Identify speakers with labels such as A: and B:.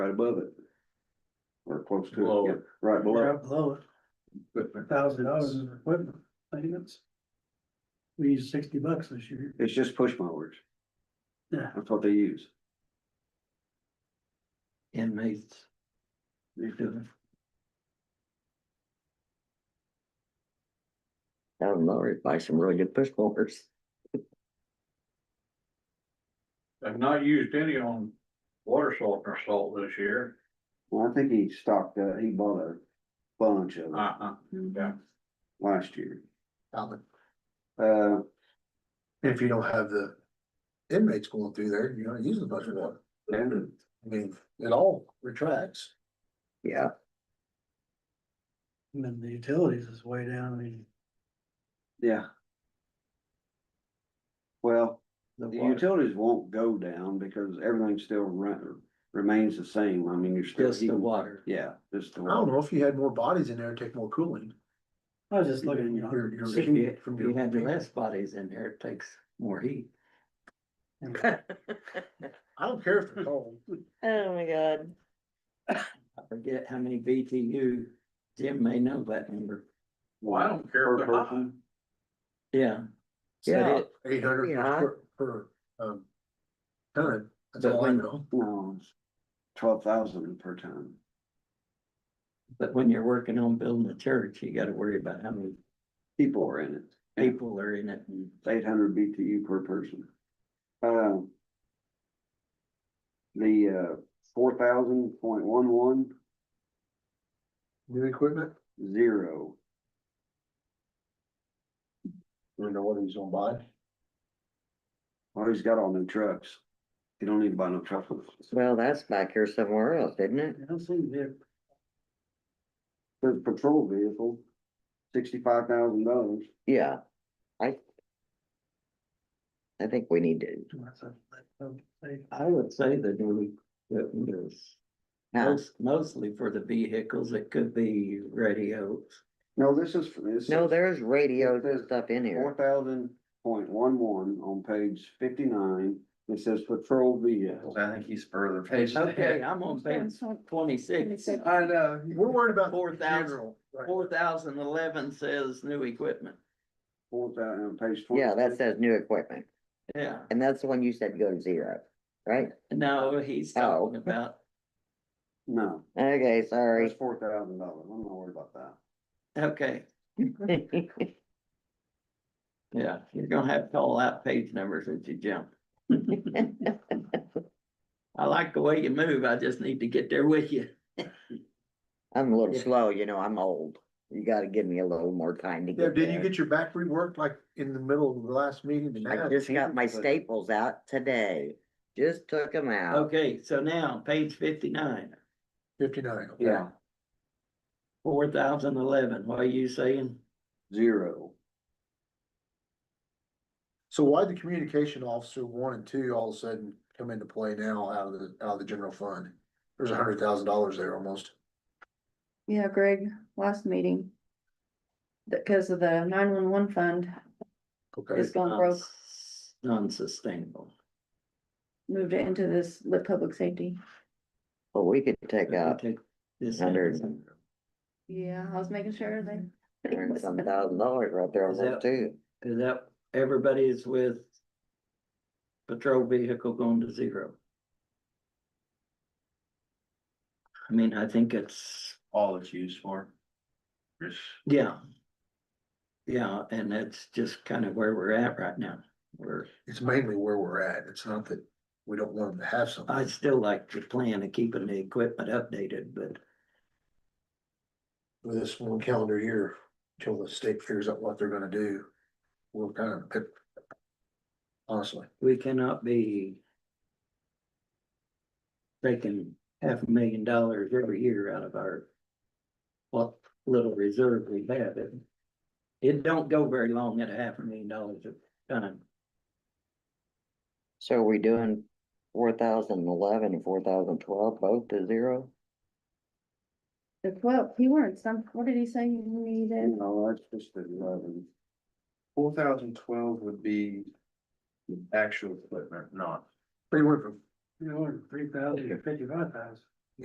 A: above it. Or close to
B: Below
A: it,
B: it.
A: yeah, right below.
C: Right below it,
A: it.
C: thousand dollars in equipment maintenance. We used sixty bucks this year.
A: It's just push mowers.
C: Yeah.
A: That's what they use.
B: Inmates.
D: I don't know, or buy some really good push mowers.
B: I've not used any on water softener salt this year.
A: Well, I think he stocked, uh, he bought a bunch of it
B: Uh-huh.
A: last year.
E: Alan,
A: Uh,
E: If you don't have the inmates going through there, you don't use as much water.
A: and
E: I mean, it all retracts.
D: Yeah,
C: And then the utilities is way down, I mean,
A: Yeah. Well,
D: The
A: the
D: water.
A: utilities won't go down because everything still run, remains the same. I mean, you're still.
D: just the
A: heating-
D: water.
A: Yeah, just the
E: I don't
A: water.
E: know if you had more bodies in there, it'd take more cooling.
C: I was just looking, you know,
E: Your- your-
D: If you,
E: from
D: if
E: your-
D: you had less bodies in there, it takes more heat.
E: I don't care if they're cold.
F: Oh my god.
D: I forget how many BTU, Jim may know that number.
B: Well, I don't care
A: Per
B: if they're hot.
A: person.
D: Yeah. But
F: Yeah.
D: it-
E: Eight hundred
F: Yeah.
E: per, per, um. Ton, that's
D: But
E: all I
D: when-
E: know.
A: No, it's twelve thousand per ton.
D: But when you're working on building a church, you gotta worry about how many
A: People are in it. Yeah.
D: people are in it and
A: It's eight hundred BTU per person. Um. The uh, four thousand point one one
E: New equipment,
A: zero.
E: you know what he's gonna buy.
A: Well, he's got all new trucks. He don't need to buy no trucks.
D: Well, that's back here somewhere else, isn't it?
C: I don't see there,
A: There's a patrol vehicle, sixty-five thousand dollars.
D: Yeah, I. I think we need to.
C: that's a, that's a-
D: I would say that we, that was most, mostly for the vehicles, it could be radios.
A: No, this is, this.
D: No, there's radios and
A: There's
D: stuff in
A: Four
D: here.
A: thousand point one one on page fifty-nine. It says patrol vehicle.
B: I think he's further page.
D: Okay, I'm on page twenty-six.
B: I know.
E: We're worried about.
D: Four thousand.
E: funeral, right?
D: Four thousand eleven says new equipment.
A: Four thousand on page.
G: Yeah,
A: 26.
G: that says new equipment,
D: Yeah,
G: and that's the one you said go to zero, right?
D: no, he's
G: Oh.
D: talking about,
A: No,
G: Okay,
A: that's
G: sorry.
A: four thousand dollars. I'm not worried about that.
D: okay, yeah, you're gonna have to call out page numbers as you jump. I like the way you move, I just need to get there with you.
G: I'm a little slow, you know, I'm old. You gotta give me a little more time to
E: Yeah,
G: get
E: did you
G: there.
E: get your back reworked like in the middle of the last meeting? and
G: I
E: now?
G: just got my
A: Jesus, but-
G: staples out today, just took them out.
D: Okay, so now, page fifty-nine,
E: Fifty-nine. okay.
A: Yeah,
D: four thousand eleven, what are you saying?
A: zero.
E: So why the communication officer one and two all of a sudden come into play now out of the, out of the general fund? There's a hundred thousand dollars there almost.
H: Yeah, Greg, last meeting. That, cause of the nine one one fund
E: Okay,
H: is gone broke,
D: Non-sustainable,
H: moved it into this lit public safety.
G: Well, we could take out
D: take this
G: Hundred.
D: in.
H: Yeah, I was making sure they.
G: hundred and some thousand dollars right there on
D: Is
G: that
D: that-
G: too.
D: Is that, everybody is with patrol vehicle going to zero? I mean, I think it's,
B: All it's used for. It's
D: yeah. Yeah, and that's just kind of where we're at right now, we're.
E: it's mainly where we're at. It's not that we don't want them to have something.
D: I'd still like to plan of keeping the equipment updated, but
E: with this one calendar year, till the state figures out what they're gonna do, we'll kind of pick. Honestly,
D: we cannot be taking half a million dollars every year out of our what little reserve we have. It, it don't go very long at a half a million dollars a time.
G: So are we doing four thousand eleven and four thousand twelve both to zero?
H: The twelve, he weren't some, what did he say you needed?
A: No, that's just the eleven.
B: four thousand twelve would be actual equipment, not.
E: they went from
C: you know, three thousand to fifty-five thousand.